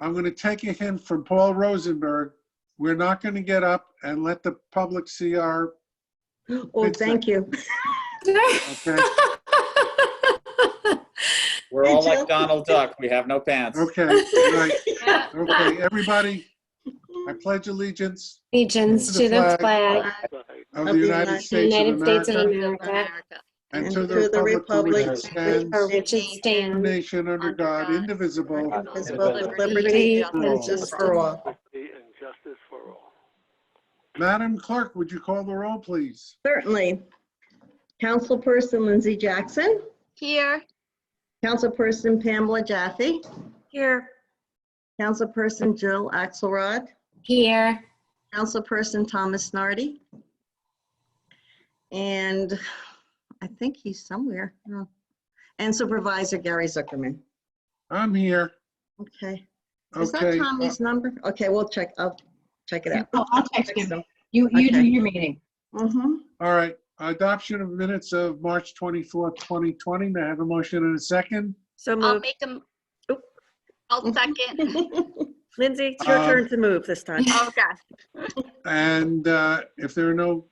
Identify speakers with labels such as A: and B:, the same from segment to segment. A: I'm going to take a hint from Paul Rosenberg. We're not going to get up and let the public see our,
B: Oh,
A: It's, uh,
B: thank you.
A: okay?
C: We're all like
B: Joke.
C: Donald Duck. We have no pants.
A: Okay, right,
D: Yeah.
A: okay, everybody, I pledge allegiance
E: Allegiance to the flag
A: of the United
E: of the
A: States of
E: United States of
A: America
E: America,
A: and to the republic for which it stands,
E: for which it
A: one
E: stands,
A: nation under God, indivisible,
B: Indivisible, with liberty
E: liberty
B: and
A: and
B: justice for all.
F: Liberty and justice for all.
A: Madam Clerk, would you call the roll, please?
B: Certainly. Councilperson Lindsay Jackson,
D: Here.
B: Councilperson Pamela Jaffe,
D: Here.
B: Councilperson Jill Axelrod,
E: here,
B: Councilperson Thomas Snarty. And I think he's somewhere. Oh. And Supervisor Gary Zuckerman.
A: I'm here,
B: Okay. Is that
A: okay. uh,
B: Tommy's number? Okay, we'll check, I'll check it out.
G: Oh, I'll text him.
B: them.
G: You, you do
B: Okay.
G: your meeting.
B: Mhm.
A: All right, adoption of minutes of March 24th, 2020, may I have a motion and a second?
H: So
D: I'll
H: move.
D: make them. I'll second.
B: Mm-hmm.
H: Lindsay, it's your
A: Um,
H: turn to move this time.
D: Oh, gosh.
A: And uh, if there are no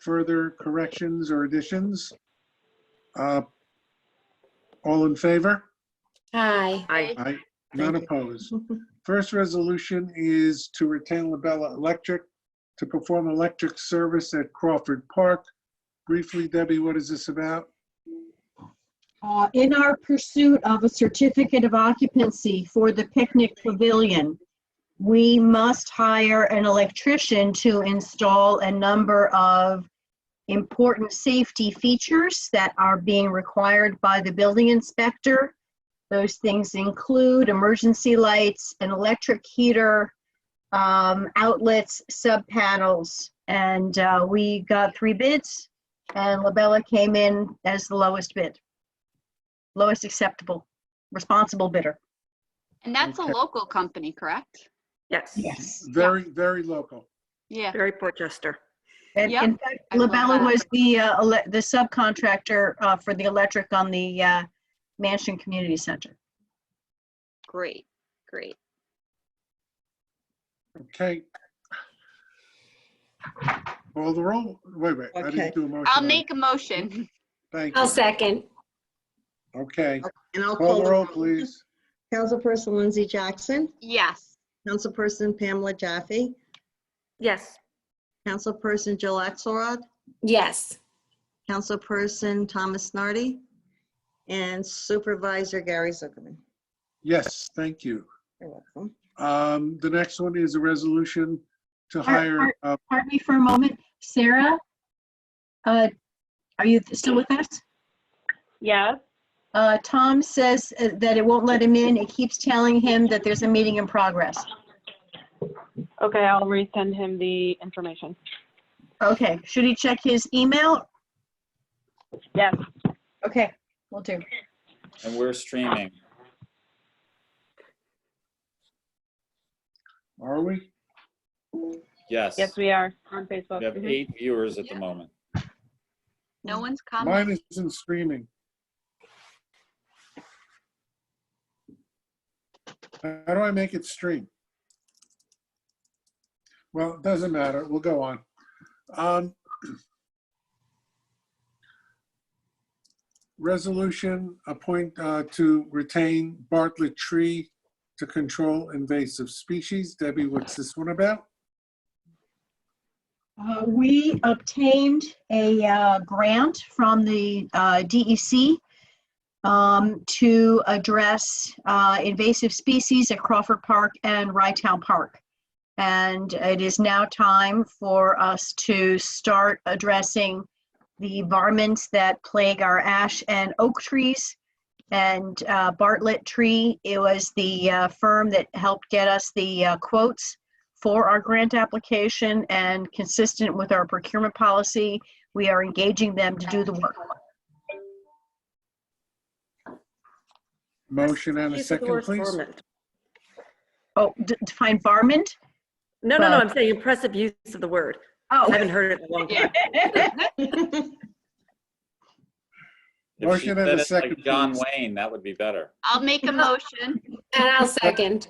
A: further corrections or additions, uh, all in favor?
E: aye,
H: I,
A: Aye. None
B: Thank
A: opposed. First resolution is to retain Labella Electric to perform electric service at Crawford Park. Briefly, Debbie, what is this about?
G: Uh, In our pursuit of a certificate of occupancy for the picnic pavilion, we must hire an electrician to install a number of important safety features that are being required by the building inspector. Those things include emergency lights, an electric heater, um, outlets, sub panels. And uh, we got three bids and Labella came in as the lowest bid lowest acceptable, responsible bidder.
D: And that's a
A: Okay.
D: local company, correct?
H: yes,
G: Yes.
A: Very, very local.
D: Yeah.
H: very Portchester.
G: And
D: Yep,
G: in fact,
D: I love
G: Labella
D: that.
G: was the, uh, ele- the subcontractor, uh, for the electric on the, uh, Mansion Community Center.
D: Great, great.
A: Okay. Call the roll. Wait, wait. I
B: Okay.
A: didn't do a motion.
D: I'll make a motion.
A: Thank
E: I'll
A: you.
E: second,
A: Okay.
B: And I'll
A: Call the roll,
B: them.
A: please.
B: Councilperson Lindsay Jackson,
D: Yes.
B: Councilperson Pamela Jaffe,
H: Yes,
B: Councilperson Jill Axelrod,
E: yes,
B: Councilperson Thomas Snarty, and Supervisor Gary Zuckerman.
A: Yes, thank you.
B: You're welcome.
A: Um, the next one is a resolution to hire, uh,
G: Pardon me for a moment, Sarah? Uh, are you still with us?
I: Yes,
G: Uh, Tom says uh, that it won't let him in. It keeps telling him that there's a meeting in progress.
I: okay, I'll resend him the information.
G: Okay, should he check his email?
I: Yes,
G: Okay, we will do.
C: And we're streaming.
A: are we?
C: Yes.
I: yes, we are on
C: We have
I: Facebook. Mm-hmm.
C: eight viewers at the moment.
D: No one's
A: Mine
D: commenting.
A: isn't streaming. How do I make it stream? Well, it doesn't matter. We'll go on. Um, Resolution appoint uh, to retain Bartlett Tree to control invasive species. Debbie, what's this one about?
G: Uh, We obtained a uh, grant from the uh, DEC um, to address uh, invasive species at Crawford Park and Rytown Park. And it is now time for us to start addressing the varmints that plague our ash and oak trees. And uh, Bartlett Tree, it was the uh, firm that helped get us the uh, quotes for our grant application and consistent with our procurement policy, we are engaging them to do the work.
A: Motion and a
H: Use of the
A: second,
H: word
A: please.
H: ferment.
G: Oh, d- define varmint?
H: No, no, no,
G: But-
H: I'm saying impressive use of the word. I
G: Oh.
H: haven't heard it in a long time.
C: If she
A: Motion and
C: said
A: a
C: it like
A: second,
C: John
A: please.
C: Wayne, that would be better.
D: I'll make a motion.
E: and I'll second,